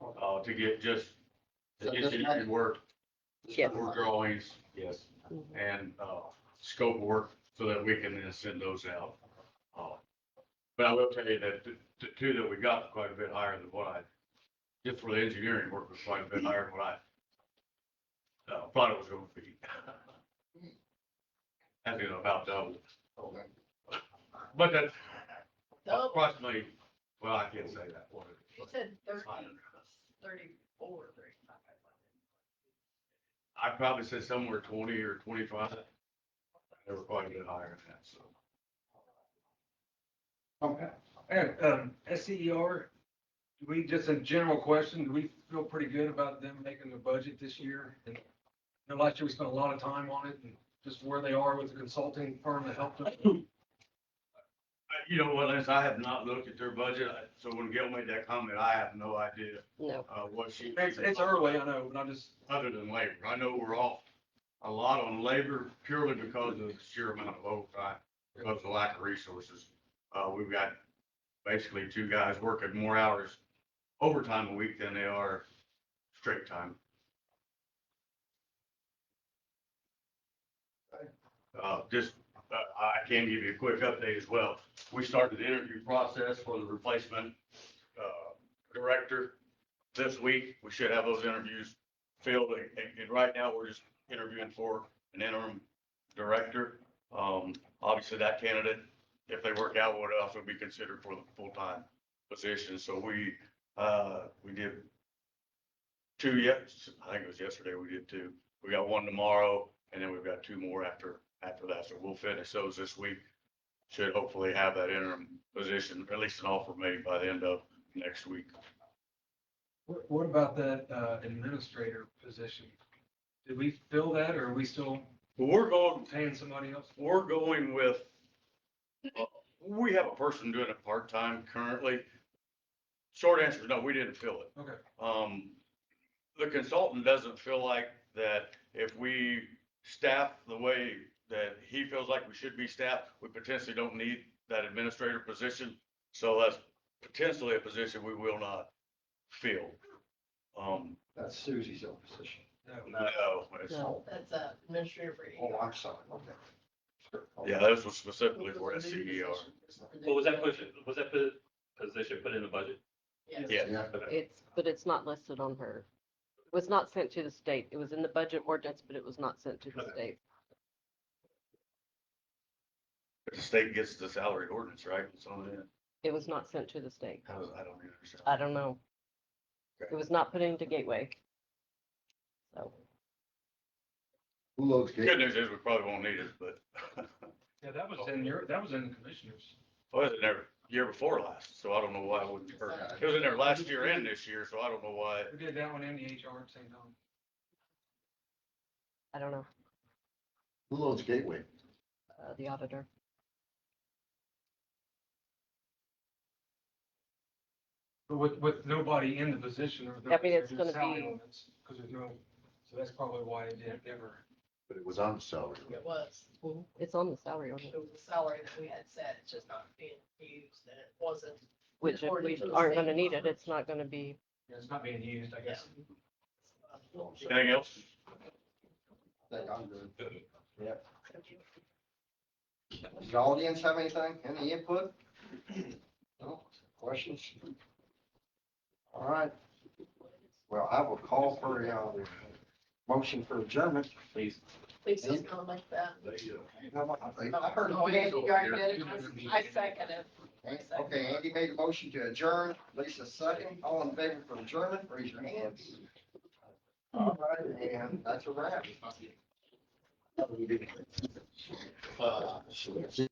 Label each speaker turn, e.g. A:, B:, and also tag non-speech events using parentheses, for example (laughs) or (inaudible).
A: uh, to get just
B: So
A: the
B: it doesn't
A: engineering work,
C: Yeah.
A: work drawings, yes,
C: Mhm.
A: and, uh, scope work so that we can then send those out. Uh, But I will tell you that the, the two that we got quite a bit higher than what I, just for the engineering work was quite a bit higher than what I uh, thought it was gonna be. (laughs) I think about double,
B: Okay.
A: but that's
D: Double.
A: approximately, well, I can't say that. what it-
D: You said
A: It's
D: thirty,
A: fine.
D: thirty-four, thirty-five.
A: I'd probably say somewhere twenty or twenty-five. They were quite a bit higher than that, so.
E: Okay. And, um, SER, do we, just a general question, do we feel pretty good about them making the budget this year? And you know, last year we spent a lot of time on it and just where they are with the consulting firm that helped us.
A: I- You know, what, Lance, I have not looked at their budget, I- so when Gail made that comment, I have no idea,
C: No,
A: uh, what she.
E: It's, it's early, I know, but I'm just,
A: Other than labor, I know we're off a lot on labor purely because of the sheer amount of overtime, because of the lack of resources. Uh, we've got basically two guys working more hours overtime a week than they are straight time. Uh, just, uh, I can give you a quick update as well. We started the interview process for the replacement, uh, director this week. We should have those interviews filled, and, and- and right now, we're just interviewing for an interim director. Um, obviously, that candidate, if they work out, would also be considered for the full-time position, so we, uh, we did two yes, I think it was yesterday we did two. We got one tomorrow, and then we've got two more after, after that, so we'll finish those this week. Should hopefully have that interim position, at least an offer made by the end of next week.
E: what, what about that, uh, administrator position? Did we fill that or are we still
A: But we're going,
E: paying somebody else?
A: We're going with, uh, we have a person doing it part-time currently. Short answer is no, we didn't fill it.
E: Okay.
A: Um, the consultant doesn't feel like that if we staff the way that he feels like we should be staffed, we potentially don't need that administrator position. So that's potentially a position we will not fill. Um,
B: That's Susie's old position.
E: No.
A: no, it's-
C: no.
D: That's a administrative rate.
B: Oh, I'm sorry, okay. Sure.
A: yeah, this was specifically for E SCDR.
F: Well, was that position, was that po- position put in the budget?
A: Yeah.
B: Yeah,
C: it's, but it's not listed on her. It was not sent to the state. It was in the budget ordinance, but it was not sent to the state.
A: The state gets the salary ordinance, right? It's on it.
C: It was not sent to the state.
A: How does, I don't even understand.
C: I don't know. It was not put into Gateway. So,
B: who loads
A: Good
B: gate?
A: news is we probably won't need it, but,
E: Yeah, that was in your, that was in the commissioners.
A: well, it was in there year before last, so I don't know why it wouldn't be hurt. It was in there last year and this year, so I don't know why.
E: We did that one in the HR at the same time.
C: I don't know,
B: Who loads gateway?
C: uh, the auditor.
E: But with, with nobody in the position or.
C: I mean, it's gonna be-
E: Because there's no, so that's probably why it didn't ever.
B: But it was on the salary.
D: It was,
C: It's on the salary
D: it
C: ordinance,
D: was a salary that we had set, it's just not being used, and it wasn't.
C: which if we
D: According to the
C: aren't gonna
D: state
C: need it,
D: law.
C: it's not gonna be,
E: Yeah, It's not being used, I guess.
A: Anything else?
B: Think I'm good. Yep. Does the audience have anything, any input? No, questions? All right. Well, I will call for a, uh, motion for adjournment.
F: Please.
D: Please just come like that. I
B: Okay,
D: heard, oh, Andy, you already did it, I I second it. I second it.
B: Andy made a motion to adjourn, Lisa second, all in favor for adjournment, raise your hands. All right, and that's a wrap. Uh,